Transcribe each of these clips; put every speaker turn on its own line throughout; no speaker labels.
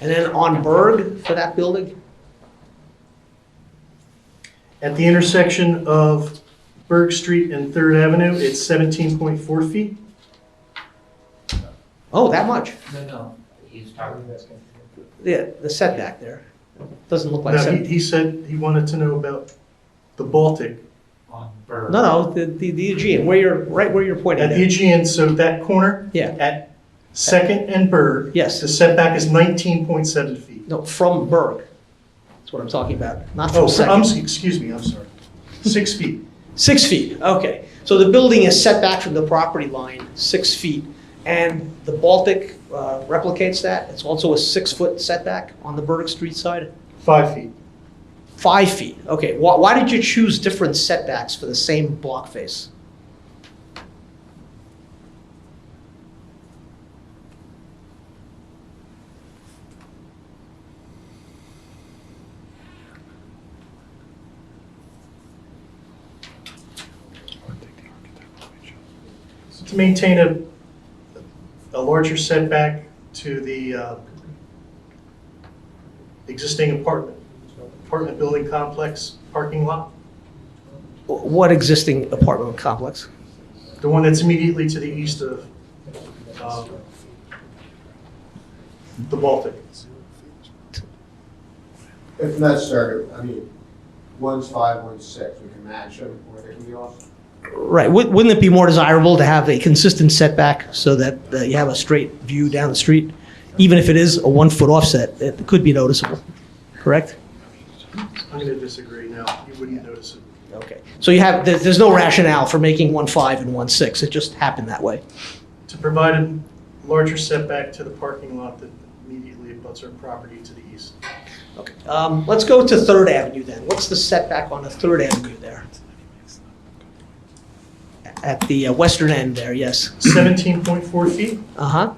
And then on Berg for that building?
At the intersection of Berg Street and Third Avenue, it's seventeen point four feet.
Oh, that much?
No, no, he's talking,
Yeah, the setback there. Doesn't look like
Now, he,
setback.
he said he wanted to know about the Baltic.
on Burr.
No, no, the, the the Aegean, where you're, right where you're pointing
At the
there.
Aegean, so that corner
Yeah,
at Second and Berg,
yes.
the setback is nineteen point seven feet.
No, from Berg. That's what I'm talking about, not
Oh,
from second.
I'm, s- excuse me, I'm sorry. Six feet.
Six feet, okay. So the building is set back from the property line, six feet. And the Baltic uh, replicates that. It's also a six-foot setback on the Berg Street side.
Five feet.
Five feet, okay. Why, why did you choose different setbacks for the same block face?
To maintain a, a larger setback to the uh, existing apartment, apartment building complex parking lot,
What existing apartment complex?
the one that's immediately to the east of um, the Baltic.
If necessary, I mean, one's five, one's six, we can match them, or they can be off.
Right, wou- wouldn't it be more desirable to have a consistent setback so that that you have a straight view down the street? Even if it is a one-foot offset, it could be noticeable, correct?
I'm going to disagree now, you wouldn't notice it.
Okay, so you have, there- there's no rationale for making one five and one six, it just happened that way.
To provide a larger setback to the parking lot that immediately abuts our property to the east.
Okay, um, let's go to Third Avenue then. What's the setback on the Third Avenue there? At the uh, western end there, yes.
17.4 feet,
Uh-huh.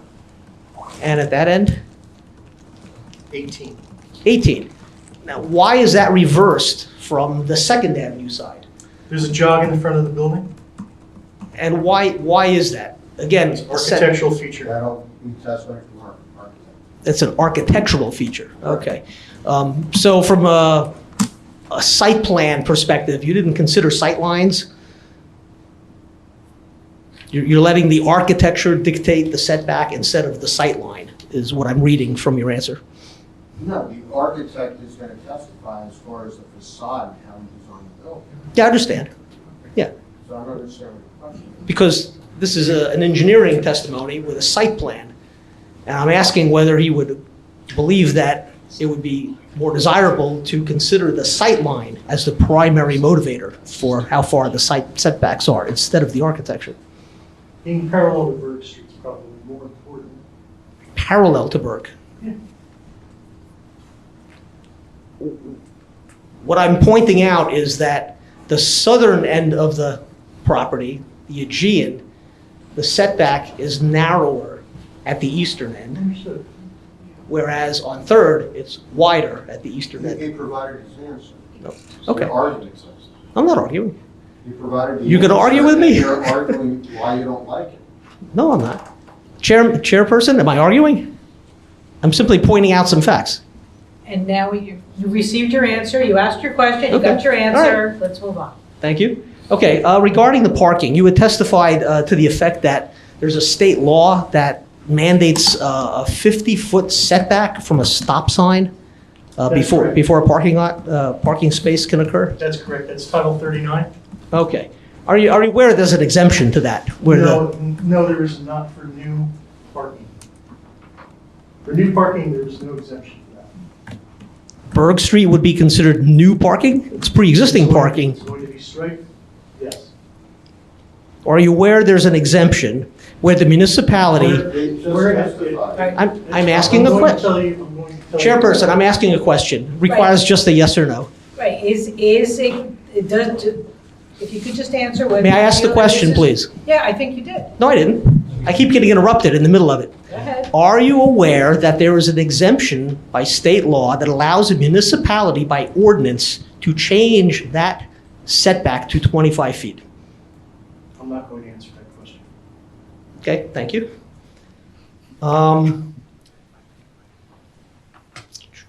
And at that end?
18.
18. Now, why is that reversed from the Second Avenue side?
There's a jog in the front of the building,
And why, why is that? Again,
it's
the set-
architectural feature.
That'll be testimony from our architect.
it's an architectural feature, okay. Um, So from a, a site plan perspective, you didn't consider sight lines. You're, you're letting the architecture dictate the setback instead of the sight line, is what I'm reading from your answer.
No, the architect is gonna testify as far as the facade and how he designed the building.
Yeah, I understand.
So I don't understand what the question is.
because this is a- an engineering testimony with a site plan. And I'm asking whether he would believe that it would be more desirable to consider the sight line as the primary motivator for how far the site setbacks are instead of the architecture,
Being parallel to Berg Street is probably more important.
parallel to Burke.
Yeah.
What I'm pointing out is that the southern end of the property, the Aegean, the setback is narrower at the eastern end.
Understood.
Whereas on third, it's wider at the eastern end.
He provided his answer.
No.
So
Okay.
the argument exists.
I'm not arguing.
He provided the
You gonna
answer,
argue with
and
me?
You're arguing why you don't like it.
No, I'm not. Chair, chairperson, am I arguing? I'm simply pointing out some facts.
And now you, you received your answer, you asked your question, you got
Okay.
your
All right.
answer, let's move on.
Thank you. Okay, uh, regarding the parking, you had testified uh, to the effect that there's a state law that mandates uh, a 50-foot setback from a stop sign uh,
That's
before,
correct.
before a parking lot, uh, parking space can occur?
That's correct, that's Title 39.
Okay. Are you, are you aware there's an exemption to that? where the-
No, n- No, there is not for new parking. For new parking, there is no exemption for that.
Berg Street would be considered new parking? It's pre-existing
It's going-
parking.
It's going to be straight, yes.
Are you aware there's an exemption where the municipality,
They just
We're-
testified.
I'm, I'm asking a
I'm going to
question.
tell you- I'm going to tell you-
Chairperson, I'm asking a question. Requires just a yes or no.
Right, is, is, it it does, if you could just answer whether.
May I
you
ask the
feel that this
question,
is-
please?
Yeah, I think you did,
No, I didn't. I keep getting interrupted in the middle of it.
go ahead.
Are you aware that there is an exemption by state law that allows a municipality by ordinance to change that setback to 25 feet?
I'm not going to answer that question.
Okay, thank you. Um,